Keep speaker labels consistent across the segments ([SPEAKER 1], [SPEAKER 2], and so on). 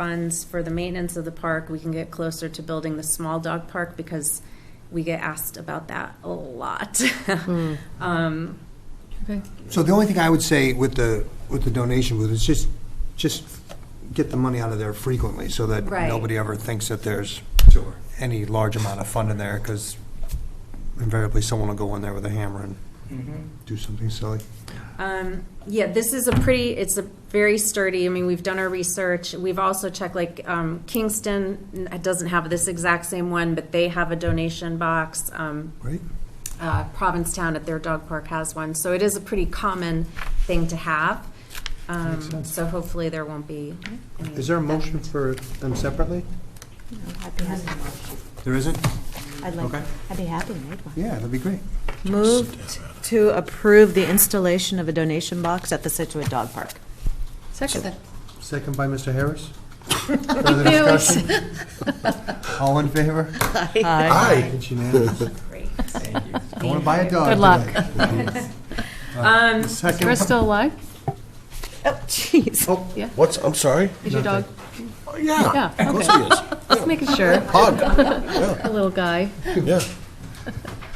[SPEAKER 1] funds for the maintenance of the park, we can get closer to building the small dog park because we get asked about that a lot.
[SPEAKER 2] Hmm.
[SPEAKER 1] Um,
[SPEAKER 3] Okay.
[SPEAKER 2] So the only thing I would say with the, with the donation booth is just, just get the money out of there frequently so that
[SPEAKER 1] Right.
[SPEAKER 2] nobody ever thinks that there's any large amount of fund in there because invariably someone will go in there with a hammer and do something silly.
[SPEAKER 1] Um, yeah, this is a pretty, it's a very sturdy, I mean, we've done our research. We've also checked, like, um, Kingston n- doesn't have this exact same one, but they have a donation box. Um,
[SPEAKER 2] Right.
[SPEAKER 1] uh, Provincetown at their dog park has one, so it is a pretty common thing to have. Um, so hopefully there won't be any.
[SPEAKER 2] Is there a motion for them separately?
[SPEAKER 4] I'd be happy,
[SPEAKER 2] There isn't?
[SPEAKER 4] I'd like,
[SPEAKER 2] Okay.
[SPEAKER 4] I'd be happy to make one.
[SPEAKER 2] Yeah, that'd be great.
[SPEAKER 4] Moved to approve the installation of a donation box at the Situate Dog Park.
[SPEAKER 3] Second.
[SPEAKER 2] Second by Mr. Harris. Further discussion? All in favor? Aye. It's unanimous.
[SPEAKER 1] Great.
[SPEAKER 2] Going to buy a dog
[SPEAKER 3] Good luck.
[SPEAKER 2] today.
[SPEAKER 1] Um,
[SPEAKER 2] Second.
[SPEAKER 3] We're still alive?
[SPEAKER 4] Oh, jeez.
[SPEAKER 5] What's, I'm sorry?
[SPEAKER 3] Is your dog?
[SPEAKER 5] Oh, Yeah.
[SPEAKER 3] Yeah,
[SPEAKER 5] Of course
[SPEAKER 3] okay.
[SPEAKER 5] he is.
[SPEAKER 3] Just making sure.
[SPEAKER 5] Hug,
[SPEAKER 3] A little guy.
[SPEAKER 5] yeah.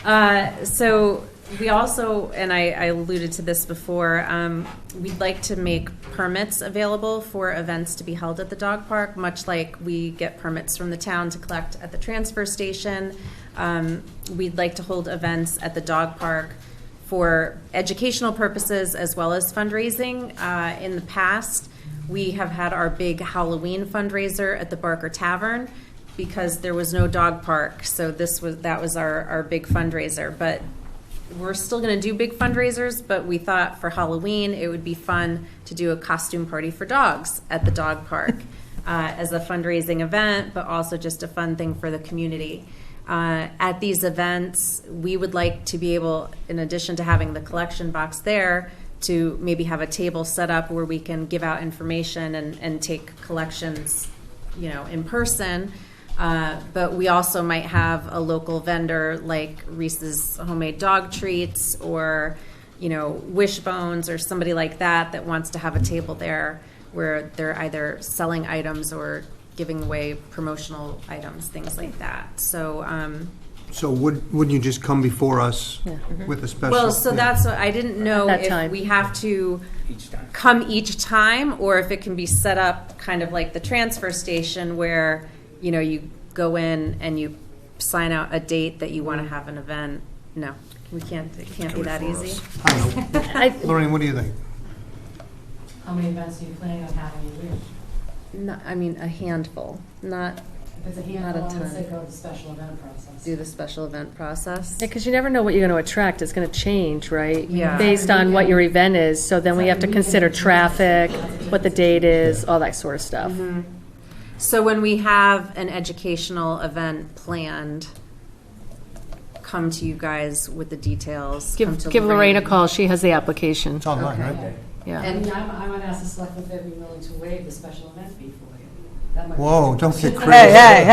[SPEAKER 1] Uh, So we also, and I I alluded to this before, um, we'd like to make permits available for events to be held at the dog park, much like we get permits from the town to collect at the transfer station. Um, We'd like to hold events at the dog park for educational purposes as well as fundraising. Uh, In the past, we have had our big Halloween fundraiser at the Barker Tavern because there was no dog park. So this was, that was our, our big fundraiser. But we're still going to do big fundraisers, but we thought for Halloween, it would be fun to do a costume party for dogs at the dog park uh, as a fundraising event, but also just a fun thing for the community. Uh, At these events, we would like to be able, in addition to having the collection box there, to maybe have a table set up where we can give out information and, and take collections, you know, in person. Uh, But we also might have a local vendor like Reese's Homemade Dog Treats or, you know, Wishbones or somebody like that that wants to have a table there where they're either selling items or giving away promotional items, things like that. So, um,
[SPEAKER 2] So would, wouldn't you just come before us with a special?
[SPEAKER 1] well, so
[SPEAKER 2] yeah.
[SPEAKER 1] that's, what I didn't know
[SPEAKER 3] That
[SPEAKER 1] if
[SPEAKER 3] time.
[SPEAKER 1] we have to
[SPEAKER 6] each time.
[SPEAKER 1] come each time, or if it can be set up kind of like the transfer station where, you know, you go in and you sign out a date that you want to have an event. No, we can't, it can't be that easy.
[SPEAKER 2] I don't know. Lorraine, what do you think?
[SPEAKER 7] How many events are you planning on having a year?
[SPEAKER 1] No, I mean, a handful, not
[SPEAKER 7] If it's
[SPEAKER 1] Not
[SPEAKER 7] a
[SPEAKER 1] a
[SPEAKER 7] handful, I would say
[SPEAKER 1] ton.
[SPEAKER 7] go with the special event process.
[SPEAKER 1] do the special event process.
[SPEAKER 3] Yeah, because you never know what you're going to attract. It's going to change, right?
[SPEAKER 1] Yeah.
[SPEAKER 3] Based on what your event is. So then we have to consider traffic, what the date is, all that sort of stuff.
[SPEAKER 1] So when we have an educational event planned, come to you guys with the details. come to
[SPEAKER 3] Give, give Lorraine a call. She has the application.
[SPEAKER 2] It's online,
[SPEAKER 1] Okay.
[SPEAKER 2] right?
[SPEAKER 7] I
[SPEAKER 3] Yeah.
[SPEAKER 7] mean, I'm, I would ask the select if they'd be willing to waive the special event fee for you. That might-
[SPEAKER 2] Whoa, don't get
[SPEAKER 4] Hey,
[SPEAKER 2] crazy.
[SPEAKER 4] hey,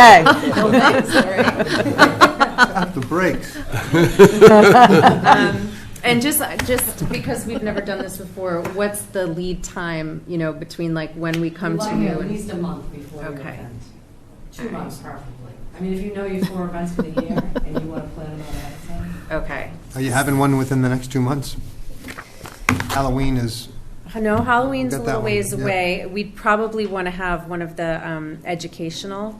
[SPEAKER 4] hey.
[SPEAKER 2] Off the brakes.
[SPEAKER 1] Um, And just, just because we've never done this before, what's the lead time, you know, between like when we come to
[SPEAKER 7] Like
[SPEAKER 1] you?
[SPEAKER 7] at
[SPEAKER 1] and-
[SPEAKER 7] least a month before your
[SPEAKER 1] Okay.
[SPEAKER 7] event. Two months preferably. I mean, if you know your four events for the year and you want to plan them out ahead of time.
[SPEAKER 1] Okay.
[SPEAKER 2] Are you having one within the next two months? Halloween is,
[SPEAKER 1] No, Halloween's a
[SPEAKER 2] Got that
[SPEAKER 1] little
[SPEAKER 2] one,
[SPEAKER 1] ways
[SPEAKER 2] yeah.
[SPEAKER 1] away. We'd probably want to have one of the um, educational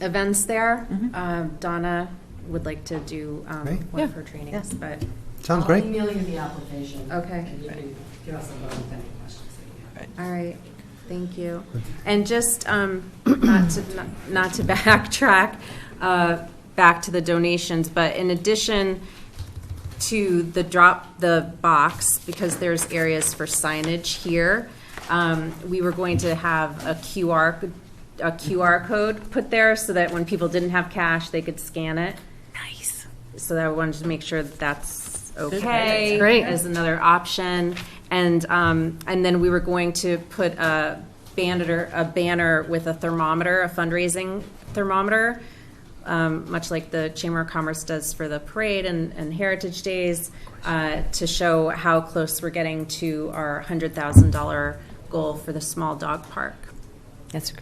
[SPEAKER 1] events there. Um, Donna would like to do um,
[SPEAKER 2] Right.
[SPEAKER 1] one of her trainings, but,
[SPEAKER 2] sounds
[SPEAKER 7] I'll
[SPEAKER 2] great.
[SPEAKER 7] email you the application.
[SPEAKER 1] Okay.
[SPEAKER 7] And you can give us a vote with any questions that you have.
[SPEAKER 1] all right, thank you. And just, um, not to, not- not to backtrack, uh, back to the donations, but in addition to the drop, the box, because there's areas for signage here, um, we were going to have a QR, c- a QR code put there so that when people didn't have cash, they could scan it. Nice. So that I wanted to make sure that that's okay.
[SPEAKER 3] Great.
[SPEAKER 1] As another option. And, um, and then we were going to put a banner, a banner with a thermometer, a fundraising thermometer, um, much like the Chamber of Commerce does for the parade and, and Heritage Days, uh, to show how close we're getting to our $100,000 goal for the small dog park.
[SPEAKER 4] That's